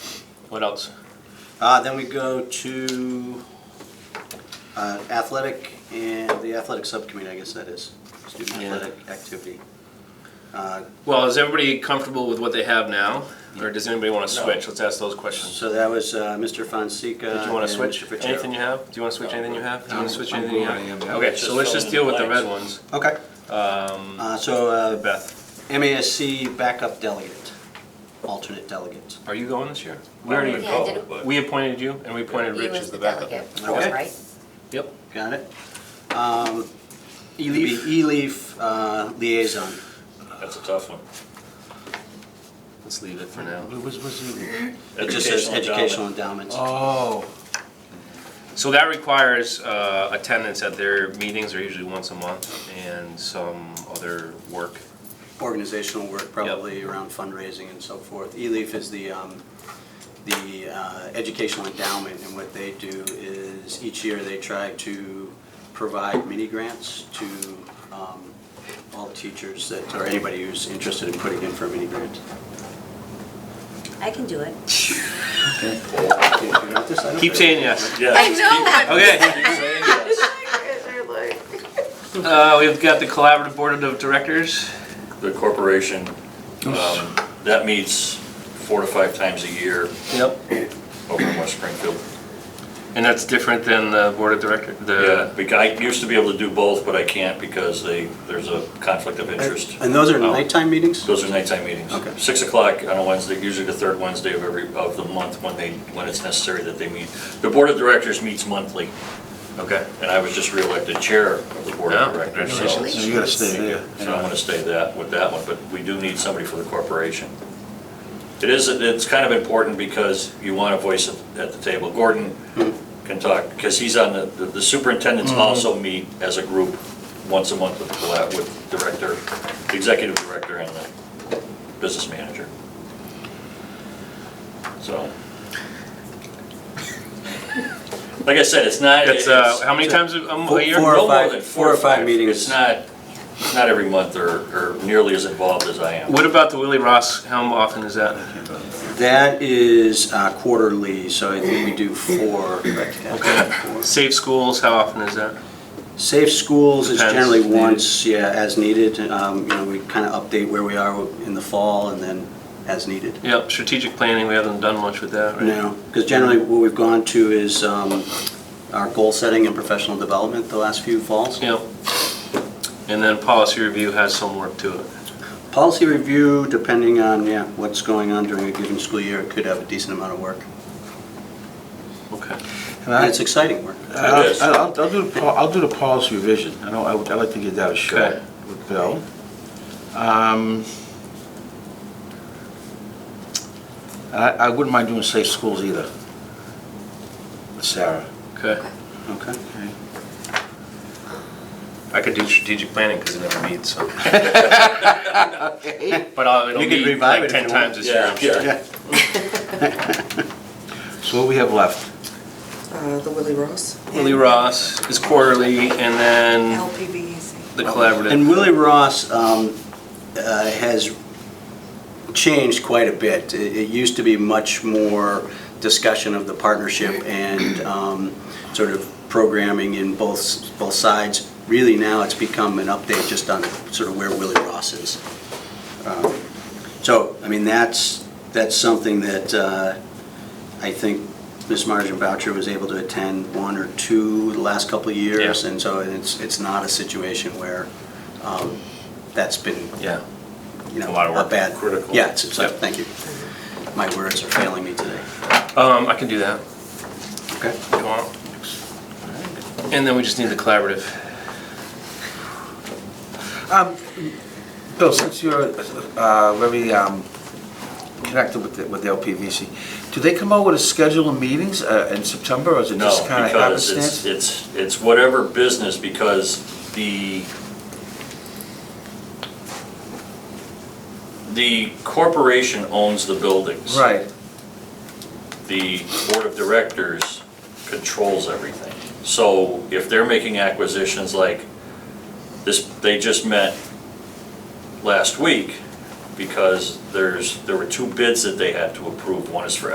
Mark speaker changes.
Speaker 1: What else?
Speaker 2: Uh, then we go to uh, athletic and the athletic subcommittee, I guess that is, student
Speaker 1: Yeah.
Speaker 2: athletic activity. Uh,
Speaker 1: Well, is everybody comfortable with what they have now? Or does anybody want to switch? Let's ask those questions.
Speaker 2: So that was uh, Mr. Fonseca.
Speaker 1: Did you want
Speaker 2: and
Speaker 1: to switch
Speaker 2: Mr. Fitzgerald.
Speaker 1: anything you have? Do you want to switch anything you have? Do you want to switch
Speaker 3: I'm
Speaker 1: anything you
Speaker 3: good where
Speaker 1: have?
Speaker 3: I am.
Speaker 1: Okay, so let's just deal with the red ones.
Speaker 2: Okay,
Speaker 1: Um,
Speaker 2: uh, so uh,
Speaker 1: Beth,
Speaker 2: MASC backup delegate, alternate delegate.
Speaker 1: are you going this year? We
Speaker 4: Well,
Speaker 1: already,
Speaker 4: yeah, I
Speaker 5: go,
Speaker 4: didn't-
Speaker 5: but-
Speaker 1: we appointed you and we appointed
Speaker 4: You
Speaker 1: Rich
Speaker 4: as
Speaker 1: as
Speaker 4: the
Speaker 1: the backup.
Speaker 4: delegate,
Speaker 2: Okay.
Speaker 4: right?
Speaker 1: Yep.
Speaker 2: Got it? Um, E E-Leaf. E-Leaf uh, liaison.
Speaker 5: That's a tough one.
Speaker 1: Let's leave it for now.
Speaker 2: What was, was it? It just says educational endowments.
Speaker 3: Oh.
Speaker 1: So that requires uh, attendance at their meetings, are usually once a month, and some other work.
Speaker 2: organizational work, probably around fundraising and so forth. ELEAF is the, um, the uh, educational endowment, and what they do is each year they try to provide mini grants to um, all teachers that, or anybody who's interested in putting in for a mini grant.
Speaker 4: I can do it.
Speaker 2: Do you want this? I don't
Speaker 1: Keep
Speaker 2: think-
Speaker 1: saying yes.
Speaker 5: Yeah.
Speaker 4: I know that.
Speaker 1: Okay, uh, we've got the collaborative board of directors.
Speaker 5: The corporation, um, that meets four to five times a year
Speaker 1: Yep.
Speaker 5: over in West Springfield.
Speaker 1: And that's different than the board of director,
Speaker 5: Yeah,
Speaker 1: the,
Speaker 5: bec- I used to be able to do both, but I can't because they, there's a conflict of interest.
Speaker 2: And those are
Speaker 5: Oh.
Speaker 2: nighttime meetings?
Speaker 5: Those are nighttime meetings.
Speaker 2: Okay.
Speaker 5: Six o'clock on a Wednesday, usually the third Wednesday of every, of the month when they, when it's necessary that they meet. The board of directors meets monthly,
Speaker 1: okay.
Speaker 5: and I was just reelected chair of the board
Speaker 1: Yeah,
Speaker 5: of directors. so-
Speaker 1: congratulations.
Speaker 3: So you gotta stay there.
Speaker 5: So I'm gonna stay that, with that one, but we do need somebody for the corporation. It is, it's kind of important because you want a voice at- at the table. Gordon can talk, because he's on the, the superintendents also meet as a group once a month with the, collab- with director, the executive director and the business manager. So. Like I said, it's not.
Speaker 1: It's, uh, how many times a
Speaker 2: Four-
Speaker 1: a year?
Speaker 2: four- or
Speaker 5: No more
Speaker 2: five-
Speaker 5: than
Speaker 2: four or five meetings.
Speaker 5: It's not, it's not every month or, or nearly as involved as I am.
Speaker 1: What about the Willie Ross, how often is that?
Speaker 2: That is uh, quarterly, so I think we do four. Okay.
Speaker 1: Safe schools, how often is that?
Speaker 2: Safe schools is
Speaker 1: Depends.
Speaker 2: generally once, yeah, as needed. Um, You know, we kind of update where we are in the fall and then as needed.
Speaker 1: Yep, strategic planning, we haven't done much with that, right?
Speaker 2: No, because generally what we've gone to is um, our goal setting and professional development the last few falls.
Speaker 1: Yep. And then policy review has some work to it.
Speaker 2: Policy review, depending on, yeah, what's going on during a given school year, could have a decent amount of work.
Speaker 1: Okay.
Speaker 3: And
Speaker 2: And
Speaker 3: I,
Speaker 2: it's exciting work.
Speaker 5: is.
Speaker 3: I'll, I'll- I'll do, the pol- I'll do the policy revision. I know, I would, I'd like to give that a shot
Speaker 1: Okay.
Speaker 3: with Bill. Um, I, I wouldn't mind doing safe schools either. With Sarah.
Speaker 1: Okay.
Speaker 2: Okay.
Speaker 1: I could do strategic planning because it never meets, so. But I'll- it'll
Speaker 2: You could
Speaker 1: meet
Speaker 2: revive
Speaker 1: like
Speaker 2: it if
Speaker 1: 10
Speaker 2: you want.
Speaker 1: times this year, I'm sure.
Speaker 3: So what we have left?
Speaker 6: Uh, the Willie Ross.
Speaker 1: Willie Ross is quarterly, and then
Speaker 6: LPBEC.
Speaker 1: the collaborative.
Speaker 2: And Willie Ross um, uh, has changed quite a bit. It it used to be much more discussion of the partnership and um, sort of programming in both, both sides. Really now, it's become an update just on sort of where Willie Ross is. Um, So, I mean, that's, that's something that uh, I think Ms. Marjorie Boucher was able to attend one or two the last couple of years.
Speaker 1: Yeah.
Speaker 2: And so it's, it's not a situation where um, that's been
Speaker 1: Yeah.
Speaker 2: you know,
Speaker 1: A lot of work.
Speaker 2: a bad.
Speaker 5: Critical.
Speaker 2: Yeah, it's, it's like,
Speaker 1: Yep.
Speaker 2: thank you. My words are failing me today.
Speaker 1: Um, I can do that.
Speaker 2: Okay.
Speaker 1: if you want. And then we just need the collaborative.
Speaker 3: Um, Bill, since you're uh, very um, connected with the- with LPVC, do they come out with a schedule of meetings uh, in September, or is it
Speaker 5: No,
Speaker 3: just kind of
Speaker 5: because it's,
Speaker 3: happenstance?
Speaker 5: it's, it's whatever business, because the, the corporation owns the buildings.
Speaker 3: Right,
Speaker 5: the board of directors controls everything. So if they're making acquisitions like this, they just met last week because there's, there were two bids that they had to approve. One is for